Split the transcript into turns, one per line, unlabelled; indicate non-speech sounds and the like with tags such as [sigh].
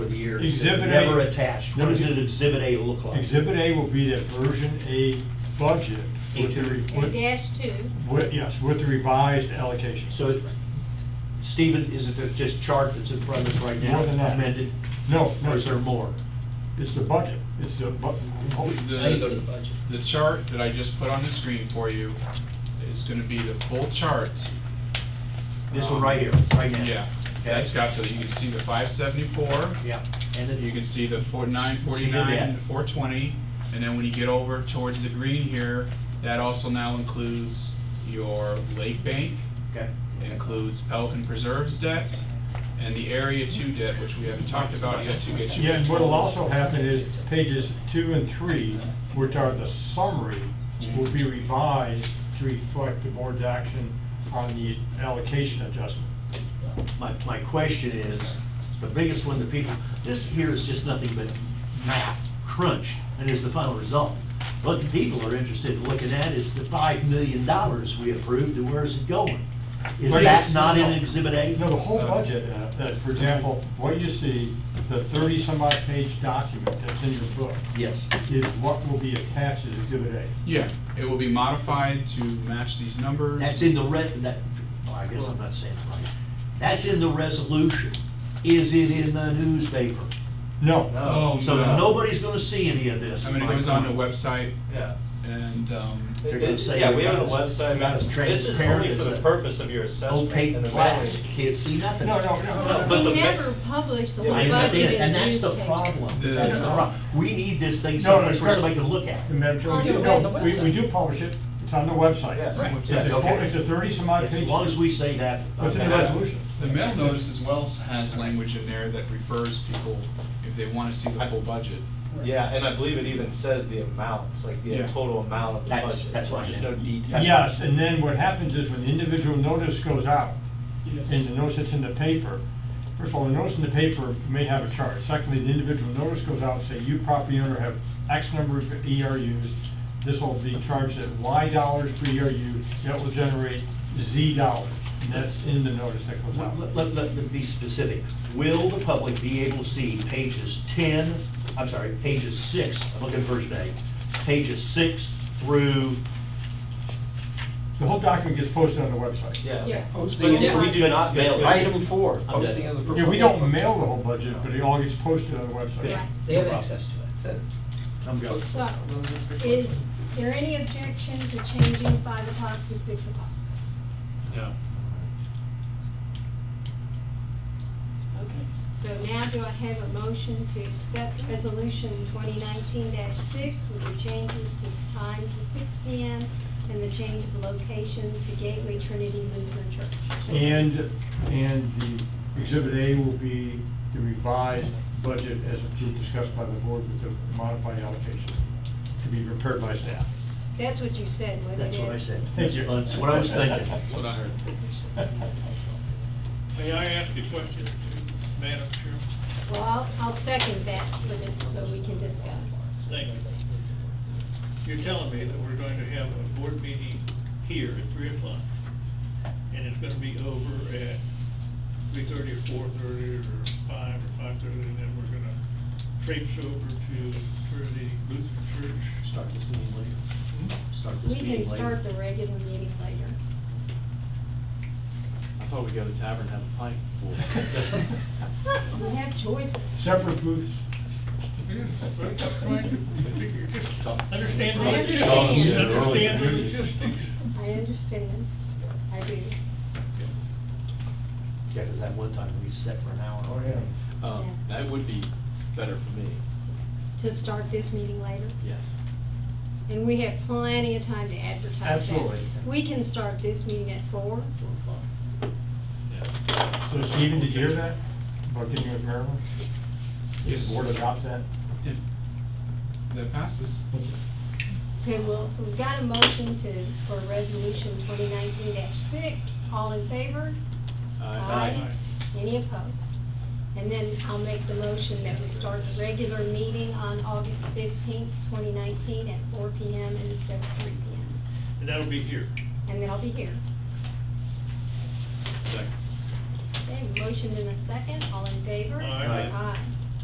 years.
Exhibit A.
Never attached.
What does Exhibit A look like?
Exhibit A will be that version A budget with the, re-
A
with-
dash two,
with, yes, with the revised allocation.
So, Stephen, is it the- just chart that's in front of us right now?
More than that.
Amended?
No, no,
Or is
it's
there more?
it's the budget, it's the bu- oh,
Now you go to the
budget.
The chart that I just put on the screen for you is gonna be the full chart.
This
Um,
one right here, right now?
Yeah,
Okay.
that's got the, you can see the five seventy-four,
Yeah, and then
you can see the four, nine
See
forty-nine,
that?
the four twenty, and then when you get over towards the green here, that also now includes your lake bank,
Okay.
includes Pelican Preserves debt, and the Area Two debt, which we haven't talked about yet to get you.
Yeah, and what'll also happen is pages two and three, which are the summary, will be revised to reflect the board's action on the allocation adjustment.
My, my question is, the biggest one that people, this here is just nothing but math crunch, and is the final result. What people are interested in looking at is the five million dollars we approved, and where's it going? Is
Well,
that
yes,
not in
no.
Exhibit A?
No, the whole budget, uh, that, for example, what you see, the thirty-some-odd page document that's in your book
Yes.
is what will be attached as Exhibit A.
Yeah, it will be modified to match these numbers.
That's in the red, that, well, I guess I'm not saying it right. That's in the resolution. Is it in the newspaper?
No,
Oh,
So
no.
nobody's gonna see any of this.
I mean, it
My
goes on the
point.
website
Yeah.
and, um,
They're gonna say
Yeah,
you're
we have a
not as-
website.
you're not as
This is
transparent
only for
as
the
a
purpose of your assessment.
opaque
and the
glass,
value.
can't see nothing.
no, no, no,
But
we
no.
the ma-
never publish the
Yeah,
I
budget in the
understand, and that's
newspaper.
the problem,
The-
that's the problem. We need this thing
No, no,
someplace where
it's-
somebody can look at it.
Madam Chair, we
On
do-
the
no,
website.
we, we do publish it, it's on the website.
Yeah, it's on the
It's
website.
a,
Okay.
it's a thirty-some-odd page.
As long as we say that.
What's in the
okay.
resolution?
the mail notice as well has language in there that refers people, if they want to see the full budget.
Yeah, and I believe it even says the amounts, like the
Yeah.
total amount of the
That's-
budget.
that's what I
There's
meant.
no detail.
Yes, and then what happens is when the individual notice goes out, and the notice that's in the paper, first of all, the notice in the paper may have a chart. Secondly, the individual notice goes out, say, you property owner have X number of ERUs, this will be charged at Y dollars per ERU, that will generate Z dollars, and that's in the notice that goes out.
Let, let, let me be specific. Will the public be able to see pages ten, I'm sorry, pages six, I'm looking at version A, pages six through,
The whole document gets posted on the website.
Yeah.
Yes.
But
Posting, we do not mail it.
Item
four,
posting of
Yeah, we don't mail the whole budget, but it all gets posted on the website.
Right.
They have access to it.
I'm going.
So, is there any objection to changing five o'clock to six o'clock?
Yeah.
Okay. So now do I have a motion to accept resolution twenty nineteen six with the changes to the time to six P M and the change of location to Gateway Trinity Lutheran Church?
And, and the exhibit A will be the revised budget as approved, discussed by the board with the modified allocation to be prepared by staff.
That's what you said, wasn't it?
That's what I said.
Thank you.
That's what I was thinking.
That's what I heard.
May I ask a question, Madam Chair?
Well, I'll, I'll second that limit so we can discuss.
Thank you. You're telling me that we're going to have a board meeting here at three o'clock, and it's gonna be over at three thirty or four thirty or five or five thirty, and then we're gonna traipse over to Trinity Lutheran Church.
Start this meeting later. Start
Hmm? We
this meeting later.
can start the regular meeting later.
I thought we'd go to the tavern and have a pint.
We have choices.
[laughs] Separate booths.
I'm trying to figure, just understand
I
the logistics.
understand.
Understand the logistics.
I understand, I do.
Yeah, because that [laughs] one time we sat for an hour.
Oh, yeah.
Um, That would be better for me,
To start this meeting later,
yes.
and we have plenty of time to advertise that.
Absolutely.
We can start this meeting at four.
Yeah.
So Stephen, did you hear that? About getting with Maryland?
Yes.
The board adopts that?
If that passes.
Okay, well, we've got a motion to, for resolution twenty nineteen six, all in favor?
Aye.
Any opposed? And then I'll make the motion that we start the regular meeting on August fifteenth, twenty nineteen at four P M instead of three P M.
And that'll be here.
And then I'll be here.
Second.
Okay, motion in a second, all in favor?
Aye.
Aye.